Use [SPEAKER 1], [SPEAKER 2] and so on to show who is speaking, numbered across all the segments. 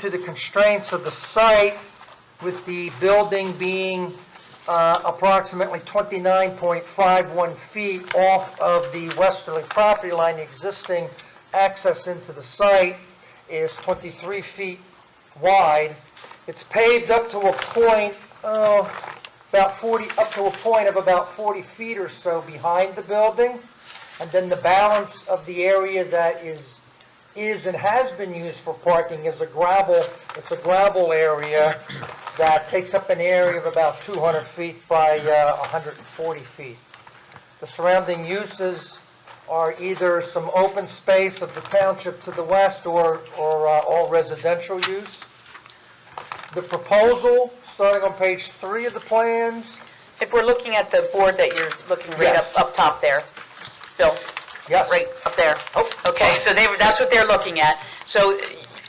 [SPEAKER 1] to the constraints of the site with the building being uh, approximately 29.51 feet off of the westerly property line, the existing access into the site is 23 feet wide. It's paved up to a point, oh, about 40, up to a point of about 40 feet or so behind the building. And then the balance of the area that is is and has been used for parking is a gravel, it's a gravel area that takes up an area of about 200 feet by uh, 140 feet. The surrounding uses are either some open space of the township to the west or, or uh, all residential use. The proposal, starting on page three of the plans,
[SPEAKER 2] If we're looking at the board that you're looking right up,
[SPEAKER 1] Yes.
[SPEAKER 2] up top there, Bill,
[SPEAKER 1] yes.
[SPEAKER 2] right up there. Oh, okay, so they, were- that's what they're looking at. So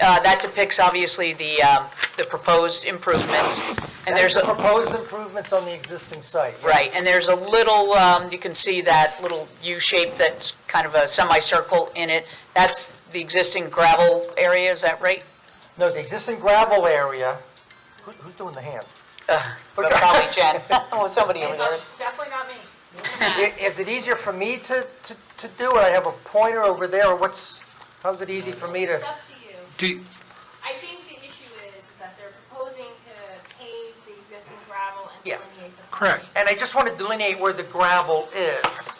[SPEAKER 2] uh, that depicts obviously the, um, the proposed improvements. And
[SPEAKER 1] That's
[SPEAKER 2] there's,
[SPEAKER 1] the
[SPEAKER 2] a
[SPEAKER 1] proposed improvements on the existing site. yes.
[SPEAKER 2] right, and there's a little, um, you can see that little U shape that's kind of a semicircle in it. That's the existing gravel area, is that right?
[SPEAKER 1] No, the existing gravel area, who- who's doing the hand?
[SPEAKER 2] But Probably Jen. Uh, Oh, somebody over there.
[SPEAKER 3] It's definitely not me.
[SPEAKER 1] I- Is it easier for me to, to, to do it? I have a pointer over there, or what's, how's it easy for me to?
[SPEAKER 3] It's up to you.
[SPEAKER 4] Do you-
[SPEAKER 3] I think the issue is, is that they're proposing to pave the existing gravel and
[SPEAKER 1] Yeah.
[SPEAKER 3] delineate the.
[SPEAKER 4] Correct.
[SPEAKER 1] And I just want to delineate where the gravel is.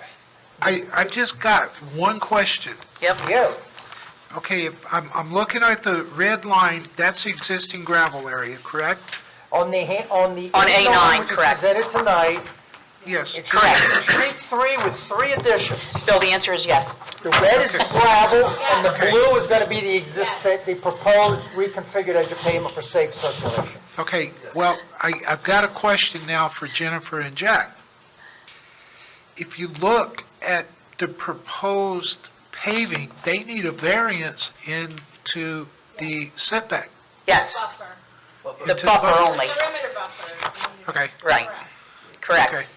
[SPEAKER 4] I, I just got one question.
[SPEAKER 2] Yep,
[SPEAKER 1] Yeah,
[SPEAKER 4] Okay, if I'm, I'm looking at the red line, that's the existing gravel area, correct?
[SPEAKER 1] on the, ha- on the.
[SPEAKER 2] On A9,
[SPEAKER 1] A9, which is
[SPEAKER 2] correct.
[SPEAKER 1] Presented tonight.
[SPEAKER 4] Yes.
[SPEAKER 1] it's Street three with three additions.
[SPEAKER 2] Bill, the answer is yes.
[SPEAKER 1] The red is the gravel, and the
[SPEAKER 4] Okay.
[SPEAKER 1] blue is going to be the existing, the proposed reconfigured edge of pavement for safe circulation.
[SPEAKER 4] Okay, well, I, I've got a question now for Jennifer and Jack. If you look at the proposed paving, they need a variance into the setback.
[SPEAKER 2] Yes,
[SPEAKER 3] Buffer,
[SPEAKER 2] the
[SPEAKER 4] Into-
[SPEAKER 2] buffer only,
[SPEAKER 3] perimeter buffer. you need to-
[SPEAKER 4] Okay.
[SPEAKER 2] Right.
[SPEAKER 3] Correct.
[SPEAKER 4] Okay.
[SPEAKER 2] correct,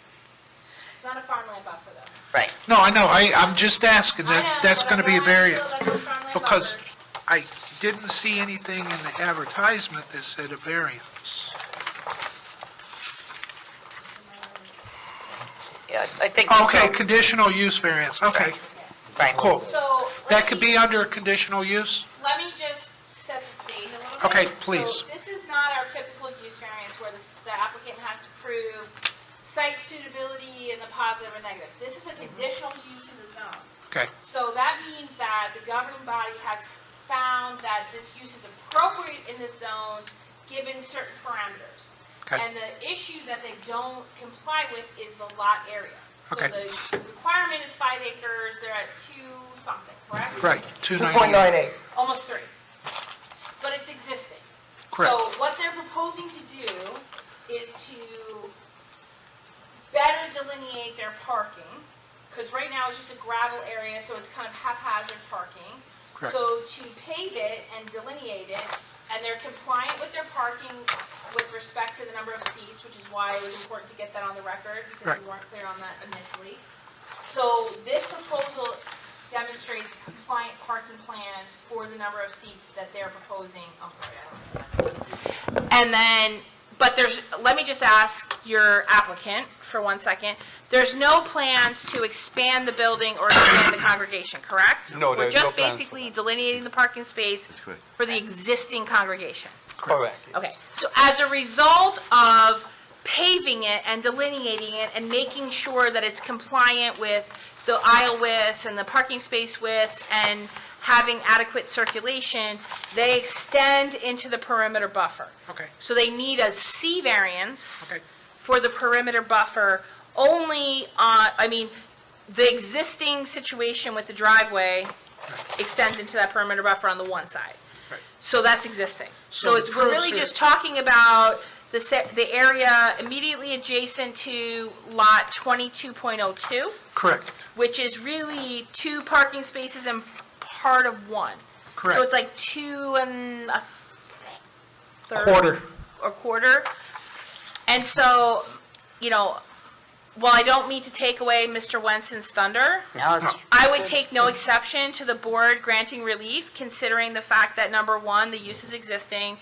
[SPEAKER 3] It's not a farmland buffer though.
[SPEAKER 2] right.
[SPEAKER 4] No, I know, I, I'm just asking,
[SPEAKER 3] I
[SPEAKER 4] that,
[SPEAKER 3] know,
[SPEAKER 4] that's
[SPEAKER 3] but
[SPEAKER 4] gonna
[SPEAKER 3] I
[SPEAKER 4] be a
[SPEAKER 3] know how you
[SPEAKER 4] variance.
[SPEAKER 3] feel about those farmland
[SPEAKER 4] Because
[SPEAKER 3] buffers.
[SPEAKER 4] I didn't see anything in the advertisement that said a variance.
[SPEAKER 2] Yeah, I think.
[SPEAKER 4] Okay, conditional use variance, okay,
[SPEAKER 2] Right.
[SPEAKER 4] cool.
[SPEAKER 3] So. let
[SPEAKER 4] That could
[SPEAKER 3] me-
[SPEAKER 4] be under conditional use?
[SPEAKER 3] Let me just set the stage a little bit.
[SPEAKER 4] Okay,
[SPEAKER 3] So
[SPEAKER 4] please.
[SPEAKER 3] this is not our typical use variance where the s- the applicant has to prove site suitability in the positive or negative. This is a conditional use in the zone.
[SPEAKER 4] Okay,
[SPEAKER 3] So that means that the governing body has found that this use is appropriate in this zone, given certain parameters.
[SPEAKER 4] Okay.
[SPEAKER 3] And the issue that they don't comply with is the lot area.
[SPEAKER 4] Okay.
[SPEAKER 3] So the requirement is five acres, they're at two something, correct?
[SPEAKER 4] right, 298,
[SPEAKER 1] 2.98.
[SPEAKER 3] Almost three. But it's existing.
[SPEAKER 4] correct.
[SPEAKER 3] So what they're proposing to do is to better delineate their parking, because right now it's just a gravel area, so it's kind of haphazard parking.
[SPEAKER 4] Correct.
[SPEAKER 3] So to pave it and delineate it, and they're compliant with their parking with respect to the number of seats, which is why it was important to get that on the record, because
[SPEAKER 4] Right.
[SPEAKER 3] we weren't clear on that initially. So this proposal demonstrates compliant parking plan for the number of seats that they're proposing, I'm sorry, I don't know. And then, but there's, let me just ask your applicant for one second. There's no plans to expand the building or expand the congregation, correct?
[SPEAKER 5] No, there's no
[SPEAKER 3] We're just
[SPEAKER 5] plans for
[SPEAKER 3] basically delineating the parking space
[SPEAKER 5] correct.
[SPEAKER 3] for the existing congregation.
[SPEAKER 5] Correct.
[SPEAKER 3] Okay, so as a result of paving it and delineating it and making sure that it's compliant with the aisle widths and the parking space widths and having adequate circulation, they extend into the perimeter buffer.
[SPEAKER 4] Okay.
[SPEAKER 3] So they need a C variance
[SPEAKER 4] Okay.
[SPEAKER 3] for the perimeter buffer only on, I mean, the existing situation with the driveway extends into that perimeter buffer on the one side.
[SPEAKER 4] Right.
[SPEAKER 3] So that's existing. So
[SPEAKER 4] the
[SPEAKER 3] it's, we're really
[SPEAKER 4] proofs are-
[SPEAKER 3] just talking about the se, the area immediately adjacent to lot twenty-two point oh two,
[SPEAKER 4] Correct,
[SPEAKER 3] which is really two parking spaces and part of one. So it's
[SPEAKER 4] correct.
[SPEAKER 3] like two and a th- third
[SPEAKER 4] Quarter,
[SPEAKER 3] or quarter. And so, you know, while I don't mean to take away Mr. Wenson's thunder,
[SPEAKER 2] No, it's,
[SPEAKER 3] I would take no exception to the board granting relief, considering the fact that, number one, the use is existing,